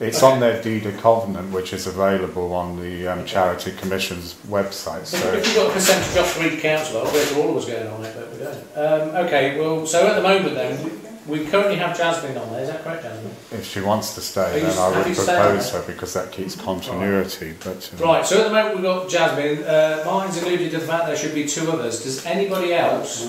It's on their deed of covenant, which is available on the um, Charity Commission's website. So If we've got a percentage off for each council, I'll bet all of us going on it, but we don't. Um, okay, well, so at the moment then, we, we currently have Jasmine on there, is that correct, Jasmine? if she wants to Are stay, you Mm-hmm. then I would happy to stay propose her because that keeps continuity. But um, Right, so at the moment we've got Jasmine, uh, Martin's alluded to the fact there should be two others. Does anybody else?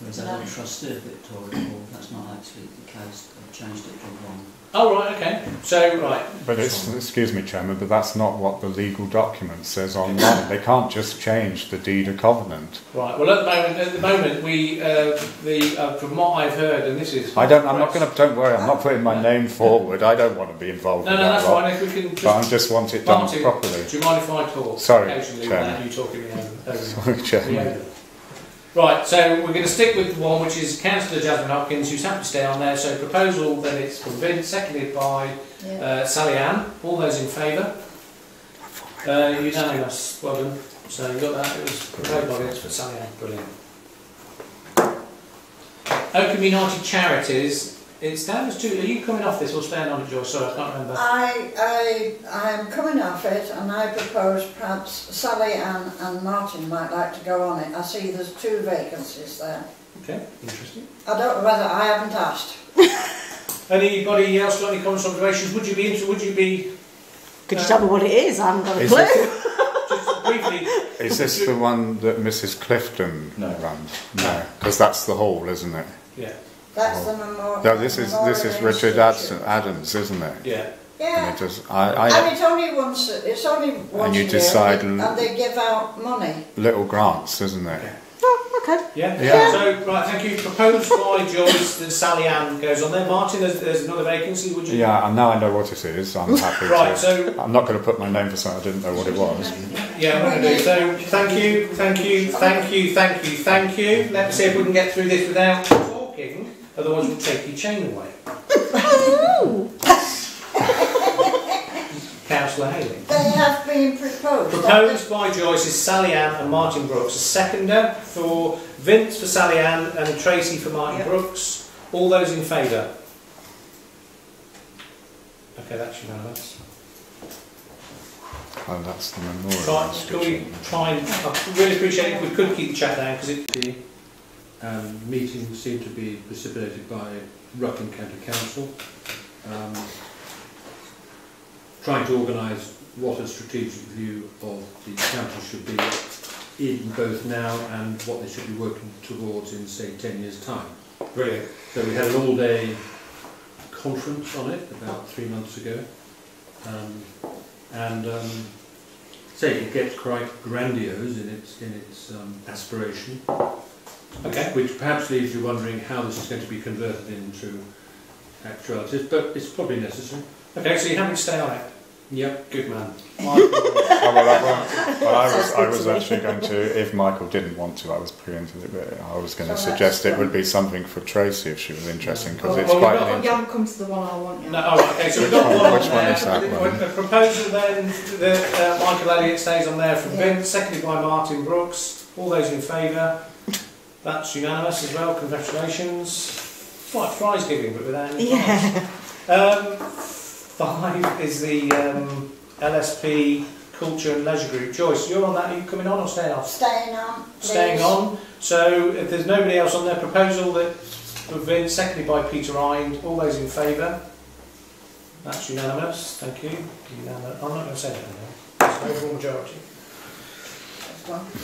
There's a trustee of Victoria Hall, that's not actually the case, I've changed it to one. Oh, right, okay. So, right, But it's, excuse me, Chairman, but that's not what the legal document says online. They can't just change the deed of covenant. right. Well, at the moment, at the moment we, uh, the, uh, from what I've heard, and this is. I don't, I'm not going to, don't worry, I'm not putting my name forward. I don't want to be involved No, no, in that that's lot. fine. If we can But I just. just want it done Martin. properly. Do you mind if I talk? Sorry, Occasionally Chairman. without you talking me over. over- Sorry, Chairman. Yeah. Right, so we're going to stick with the one which is Councillor Jasmine Hopkins, who's happy to stay on there. So proposal, then it's from Vince, seconded by Yeah. uh, Sally Ann. All those in favour? Uh, unanimous, well done. So you got that, it was proposed by Vince, but Sally Ann, brilliant. Oakham United Charities, it's down as two, are you coming off this or staying on it, Joyce? Sorry, I can't remember. I, I, I'm coming off it and I propose perhaps Sally Ann and Martin might like to go on it. I see there's two vacancies there. Okay, interesting. I don't know whether, I haven't asked. Anybody else got any comments or observations? Would you be, inter- would you be, Could you tell me what it is? I haven't got a Is clue. this, just briefly, is this the one that Mrs. Clifton No. runs? No, because that's the hall, isn't it? yeah, That's the memorial. Oh. No, this is this is Memorial Richard Institute. Adson, Adams, isn't it? yeah. And it Yeah. does, I, And I it's only once, it's only once you a year decide and- and, and they give out money. little grants, isn't it? Oh, okay. Yeah. Yeah. So, right, thank you. Proposed by Joyce that Sally Ann goes on there. Martin, there's, there's another vacancy, would you? Yeah, and now I know what it is. I'm happy Right, to. so, I'm not going to put my name for something I didn't know what it was. yeah, I'm going to do. So, thank you, thank you, thank you, thank you, thank you. Let's see if we can get through this without talking, otherwise we'll take your chain away. Councillor Haley. They have been proposed. Proposed by Joyce is Sally Ann and Martin Brooks. A seconder for Vince for Sally Ann and Tracy for Martin Yep. Brooks. All those in favour? Okay, that's unanimous. Oh, that's the memorial. Try, can we Institution. try and. I really appreciate it if we could keep the chat down because it. Um, meetings seem to be precipitated by Rutland County Council, um, trying to organise what a strategic view of the council should be in both now and what they should be working towards in, say, 10 years' time. Brilliant. So we had an all-day conference on it about three months ago, um, and um, say it gets quite grandiose in its in its um, aspiration, Okay. which perhaps leaves you wondering how this is going to be converted into actualities, but it's probably necessary. Okay, so you're having to stay on it. Yep. Good man. Oh, well, I, won't- well, I was, I was actually going to, if Michael didn't want to, I was preempting it, but I was going to So suggest that's it would be something for Tracy if she was interested, because Well, it's well, we've quite got- an we've You haven't come to the one I want No, all right, okay, so we've Which got one one- on which one there. is that one? The proposal then that uh, Michael Elliott stays on there from Yeah. Vince, seconded by Martin Brooks. All those in favour? That's unanimous as well, congratulations. It's like prize giving, but without any prize. Yeah. Um, five is the um, LSP Culture and Leisure Group. Joyce, you're on that, are you coming on or staying off? Staying on, please. staying on. So if there's nobody else on their proposal that have been seconded by Peter Rind, all those in favour? That's unanimous, thank you. Unanimous. I'm not going to say anything now. It's an overall majority.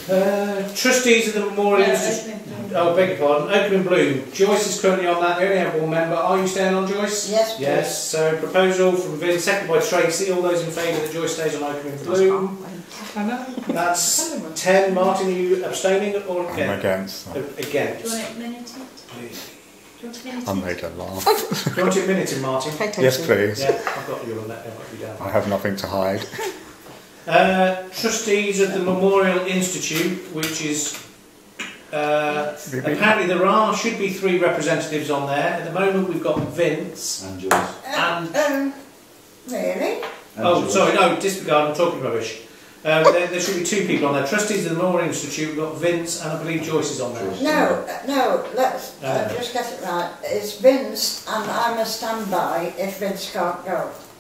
Uh, trustees of the Memorial Institute. Oh, beg your pardon. Oakham and Bloom. Joyce is currently on that. They only have one member. Are you staying on, Joyce? Yes, please. Yes. So proposal from Vin, seconded by Tracy. All those in favour that Joyce stays on Oakham and Bloom. That's ten. Martin, are you abstaining or I'm against? against that. Against. it minuted? Please. Do you want it minuted? I made her laugh. Do you want it minuted, Martin? Pay attention. Yes, please. Yeah, I've got you on that. I've got you down. I have nothing to hide. Uh, trustees of the Memorial Institute, which is uh, apparently there are should be three representatives on there. At the moment, we've got Vince. And yours. Um, um, really? Oh, sorry, no, disregard. I'm talking rubbish. Um, there, there should be two people on there. Trustees of the Memorial Institute, we've got Vince and I believe Joyce is on there. No, uh, no, let's uh, No. just get it right. It's Vince and I'm a standby if Vince can't go.